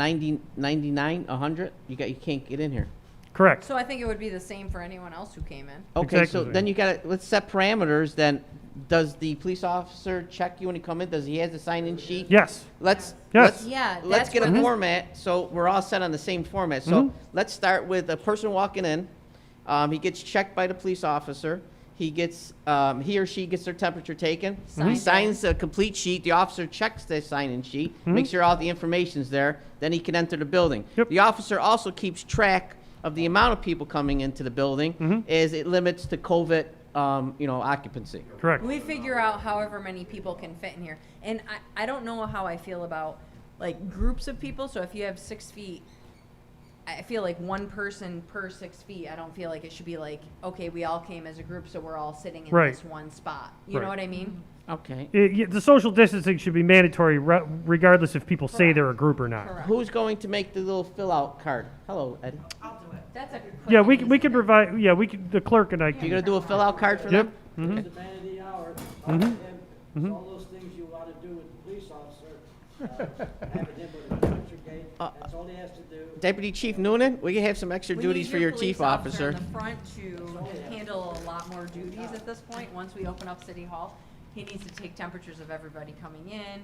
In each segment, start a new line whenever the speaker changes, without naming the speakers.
ninety, ninety-nine, a hundred, you got, you can't get in here.
Correct.
So I think it would be the same for anyone else who came in.
Okay, so
Exactly.
then you gotta, let's set parameters then. Does the police officer check you when you come in? Does he has a sign-in sheet?
Yes.
Let's.
Yes.
let's-
Yeah,
Let's
that's
get a
what this-
format, so we're all set on the same format. So
Mm-hmm.
let's start with a person walking in. Um, he gets checked by the police officer. He gets, um, he or she gets their temperature taken. He
Signed
signs a complete sheet. The officer checks the sign-in sheet, makes sure all the information's there. Then he can enter the building.
Mm-hmm. Yep.
The officer also keeps track of the amount of people coming into the building,
Mm-hmm.
as it limits to COVID, um, you know, occupancy.
Correct.
We figure out however many people can fit in here. And I, I don't know how I feel about like groups of people. So if you have six feet, I feel like one person per six feet. I don't feel like it should be like, okay, we all came as a group, so we're all sitting in
Right.
this one spot. You know
Right.
what I mean?
Okay.
It- yeah, the social distancing should be mandatory re- regardless if people say they're a group or not.
Correct.
Who's going to make the little fill-out card? Hello, Eddie.
That's a good
Yeah, we, c- we could provide, yeah, we could, the clerk and I
You
can,
gonna do a fill-out card for
Yep.
them?
Mm-hmm.
It's a man of the hour, talk to him, It's all those things you want to do with the police officer, uh, having him with a picture gate,
Uh,
that's all he has to do.
Deputy Chief Noonan, we can have some extra
We
duties
need
for your chief officer.
police officer in the front to handle a lot more duties at this point, once we open up City Hall. He needs to take temperatures of everybody coming in.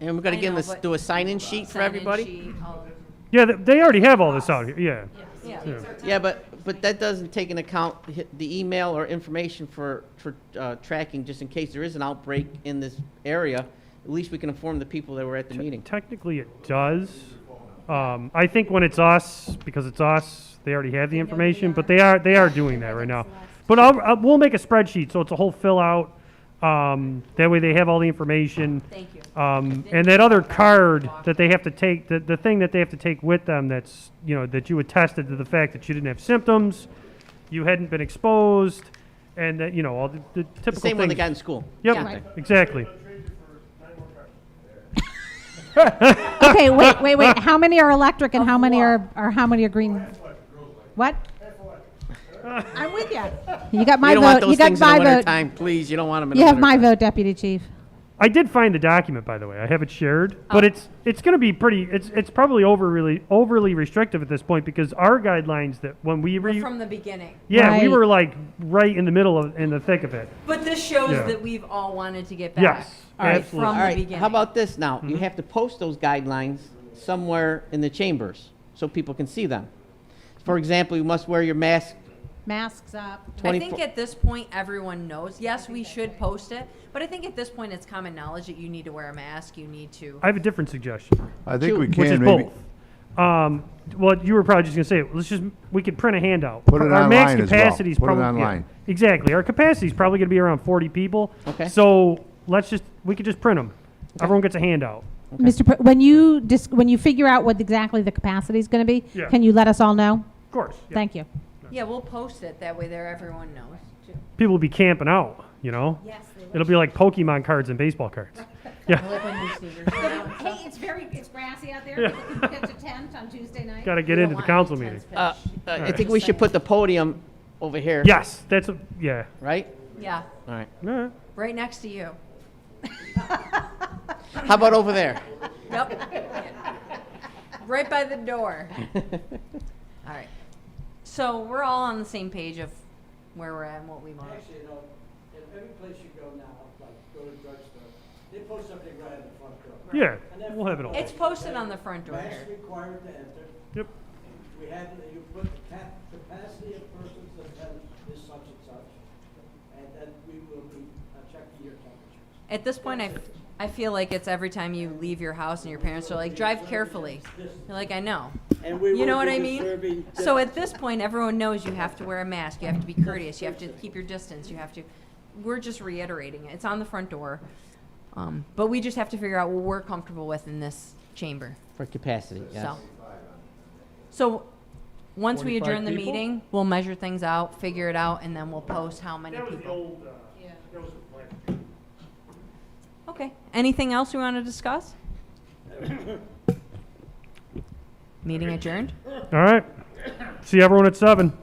And we're gonna
I
give him,
know,
a s-
but-
do a sign-in sheet for
sign-in
everybody?
sheet, all-
yeah, th- they already have all this out here, yeah.
Yeah,
Yeah, but, but that doesn't take into account hi- the email or information for, for, uh, tracking, just in case there is an outbreak in this area. At least we can inform the people that were at the meeting.
Technically, it does. Um, I think when it's us, because it's us, they already have the information, but they are, they are doing that right now. But I'll, i we'll make a spreadsheet, so it's a whole fill out. Um, that way they have all the information.
thank you.
Um, and that other card that they have to take, the, the thing that they have to take with them that's, you know, that you attested to the fact that you didn't have symptoms, you hadn't been exposed, and that, you know, all the, the typical
The same one they
things.
got in school.
Yeah.
Yep, exactly.
Okay, wait, wait, wait. How many are electric and how many are, or how many are green? What? I'm with you. You got
You
my
don't want
vote. You
those
got
things in
my
the winter
vote.
time, please, you don't want them in the
You have
winter
my
time.
vote, Deputy Chief.
I did find the document, by the way. I have it shared, but it's, it's gonna be pretty, it's, it's probably overly, overly restrictive at this point because our guidelines that when we
We're
re,
From the beginning.
yeah, we
Right.
were like right in the middle of, in the thick of it.
But this shows
Yeah.
that we've all wanted to get back.
Yes,
All right,
absolutely.
From
All
the
right,
beginning.
How about this now? You have to post those guidelines somewhere in the chambers so people can see them. For example, you must wear your mask
Masks up.
I
24
think at this point, everyone knows, yes, we should post it, but I think at this point, it's common knowledge that you need to wear a mask, you need to.
I have a different suggestion.
I think we
which is
can maybe.
both. Um, well, you were probably just gonna say, it. let's just, we could print a handout.
Put it
Our max
online as well.
capacity is
Put it
probably- yeah,
online.
Exactly, our capacity is probably gonna be around forty people.
Okay.
So, let's just, we could just print them. Everyone gets a handout.
Mr. Pr- when you dis- when you figure out what exactly the capacity is going to be,
Yeah.
can you let us all know?
Of course. yeah.
Thank you.
Yeah, we'll post it, that way there, everyone knows. too.
People will be camping out, you know?
Yes, they
It'll be like Pokemon cards and baseball cards.
Hey, it's very it's grassy out there. People can catch a tent on Tuesday night.
Gotta get
We
into
don't
the
want
council
any
meeting.
tense
Uh,
pitch.
uh, I think we should put the podium over here.
Yes, that's, a yeah.
Right?
Yeah,
All right.
All right.
right next to you.
How about over there?
Yep. Right by the door. All right. So we're all on the same page of where we're at and what we want.
Actually, you know, in every place you go now, like go to drugstore, they post something right on the front door.
Yeah,
And that
we'll have it all.
It's posted on the front door.
Mask required to enter,
Yep.
we have, you put the cap, capacity of persons that attend is such and such, and then we will be uh, checking your temperature.
At this point, I, I feel like it's every time you leave your house and your parents are like, drive carefully. You're like, I know.
And we
You
will
know what
be
I mean?
observing
So at this point, everyone knows you have to wear a mask, you have to be courteous, you have to keep your distance, you have to, we're just reiterating it. It's on the front door. Um, but we just have to figure out what we're comfortable with in this chamber.
For capacity, yes.
So, so once we
25
adjourn the
people?
meeting, we'll measure things out, figure it out, and then we'll post how many people.
old, uh, that was
Okay, anything else we want to discuss? Meeting adjourned?
All right. See everyone at seven.